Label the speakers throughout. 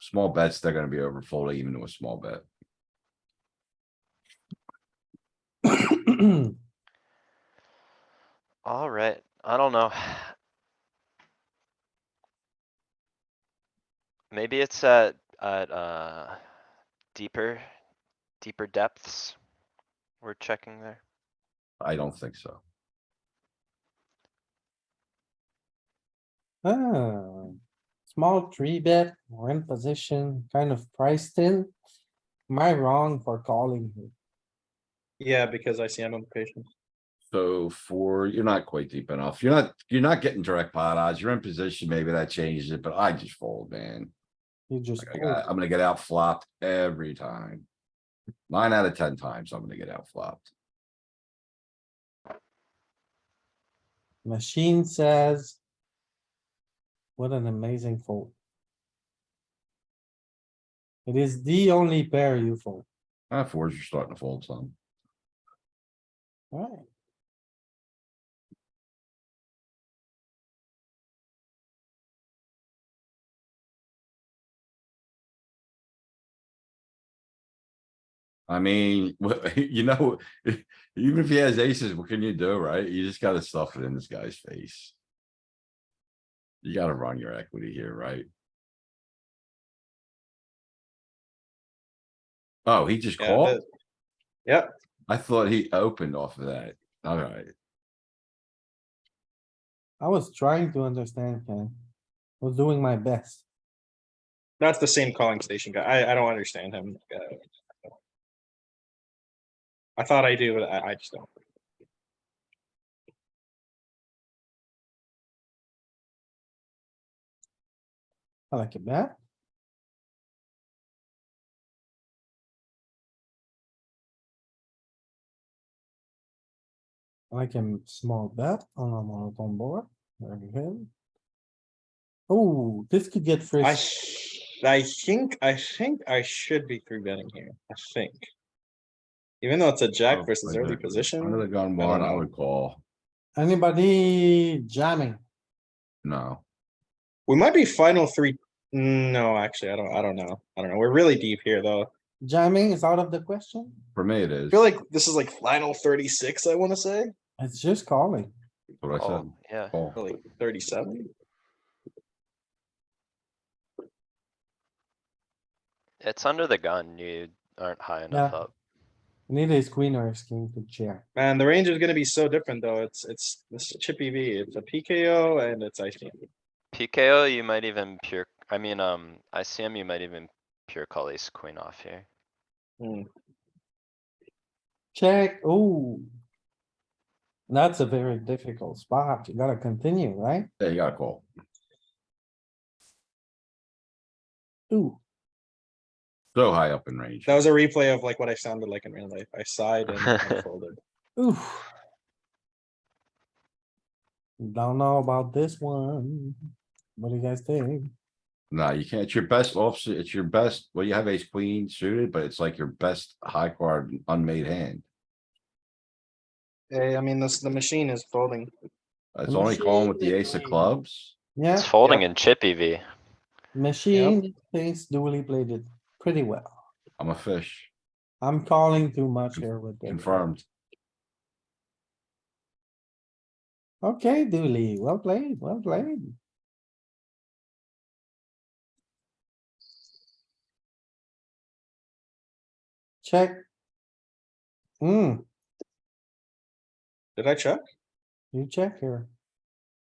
Speaker 1: Small bets, they're gonna be overfolding even to a small bet.
Speaker 2: Ah,
Speaker 3: Alright, I don't know. Maybe it's at, at, uh, deeper, deeper depths. We're checking there.
Speaker 1: I don't think so.
Speaker 2: Ah, small three bet, we're in position, kind of priced in. Am I wrong for calling? here?
Speaker 4: Yeah, because ICM implications.
Speaker 1: So for, you're not quite deep enough. You're not, you're not getting direct pot odds. You're in position. Maybe that changes it, but I just fold, man.
Speaker 2: You just,
Speaker 1: Like, I got, I'm gonna get out flopped every time. Nine out of ten times, I'm gonna get out flopped.
Speaker 2: fold. machine says. What an amazing fold. It is the only pair you fold,
Speaker 1: Uh, fours are starting to fold some.
Speaker 2: alright.
Speaker 1: I mean, what- you know, even if he has aces, what can you do, right? You just gotta stuff it in this guy's face. You gotta run your equity here, right? Oh, he just
Speaker 4: Yeah,
Speaker 1: called?
Speaker 4: that- Yep,
Speaker 1: I thought he opened off of that. Alright,
Speaker 2: I was trying to understand, Ken. I Was doing my best.
Speaker 4: that's the same calling station guy. I, I don't understand him. uh, I thought I do, but I, I just don't.
Speaker 2: I like it bet. I Like a small bet on a monotone board, very good. Oh, this could get
Speaker 4: I,
Speaker 2: frisky.
Speaker 4: sh- I think, I think I should be three betting here, I think. Even though it's a
Speaker 1: Oh,
Speaker 4: jack versus
Speaker 1: under-
Speaker 4: early
Speaker 1: Under
Speaker 4: position,
Speaker 1: the gun
Speaker 4: I
Speaker 1: one,
Speaker 4: don't
Speaker 1: I
Speaker 4: know.
Speaker 1: would call.
Speaker 2: Anybody jamming?
Speaker 1: No,
Speaker 4: we might be final three. No, actually, I don't, I don't know. I don't know. We're really deep here, though.
Speaker 2: Jamming is out of the question?
Speaker 1: for me it
Speaker 4: I
Speaker 1: is.
Speaker 4: feel like this is like final thirty-six, I wanna say,
Speaker 2: It's just calling.
Speaker 1: What I said,
Speaker 3: Oh, yeah.
Speaker 1: call.
Speaker 4: or like thirty-seven.
Speaker 3: It's under the gun. You aren't high enough
Speaker 2: Yeah.
Speaker 3: up.
Speaker 2: Need a queen or a king to check.
Speaker 4: Man, the range is gonna be so different, though. It's, it's, this chippy V, it's a PKO and it's ICM.
Speaker 3: PKO, you might even pure, I mean, um, ICM, you might even pure call ace queen off here.
Speaker 4: Hmm.
Speaker 2: Check, oh. That's a very difficult spot. You gotta continue, right?
Speaker 1: Yeah, you gotta call.
Speaker 2: Ooh.
Speaker 1: So high up in range.
Speaker 4: That was a replay of like what I sounded like in real life. I sighed and I folded.
Speaker 2: Oof. Don't know about this one. What do you guys think?
Speaker 1: No, you can't. It's your best offsuit. It's your best, well, you have ace queen suited, but it's like your best high card unmade hand.
Speaker 4: Hey, I mean, this, the machine is folding.
Speaker 1: It's only calling with the ace of clubs.
Speaker 2: Yeah,
Speaker 3: It's folding in chip E EV.
Speaker 2: machine thinks Dooley played it pretty well.
Speaker 1: I'm a fish,
Speaker 2: I'm calling too much here with this.
Speaker 1: confirmed.
Speaker 2: Okay, Dooley, well played, well played. Check. Hmm,
Speaker 4: Did I check?
Speaker 2: you check here.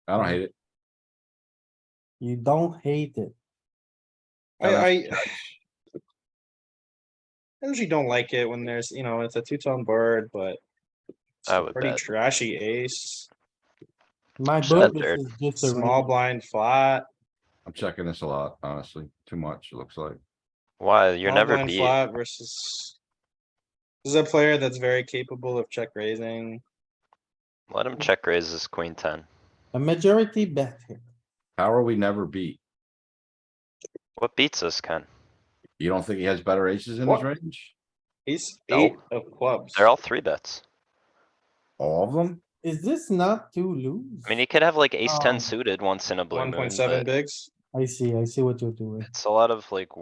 Speaker 1: I don't hate it.
Speaker 2: You don't hate it.
Speaker 4: I,
Speaker 1: Yeah.
Speaker 4: I. I usually don't like it when there's, you know, it's a two-tone board, but. it's
Speaker 3: I
Speaker 4: a
Speaker 3: would
Speaker 4: Pretty
Speaker 3: bet.
Speaker 4: trashy ace,
Speaker 2: My book,
Speaker 3: Shut
Speaker 2: this is just a.
Speaker 4: small
Speaker 2: read.
Speaker 4: blind flat.
Speaker 1: I'm checking this a lot, honestly. Too much, it looks like.
Speaker 3: Why? You're
Speaker 4: small
Speaker 3: never
Speaker 4: blind
Speaker 3: beat.
Speaker 4: flat Versus. This is a player that's very capable of check raising.
Speaker 3: Let him check raise his queen ten.
Speaker 2: A majority bet here.
Speaker 1: How are we never beat?
Speaker 3: What beats us, Ken?
Speaker 1: You don't think he has better aces in his
Speaker 4: What?
Speaker 1: range?
Speaker 4: He's
Speaker 3: Nope.
Speaker 4: eight of clubs.
Speaker 3: They're all three bets.
Speaker 1: All of them?
Speaker 2: Is this not too loose?
Speaker 3: I mean, he could have like ace
Speaker 2: Um,
Speaker 3: ten suited once in a blue
Speaker 4: One
Speaker 3: moon,
Speaker 4: point seven
Speaker 3: but
Speaker 4: bigs.
Speaker 2: I see, I see what you're doing.
Speaker 3: it's a lot of like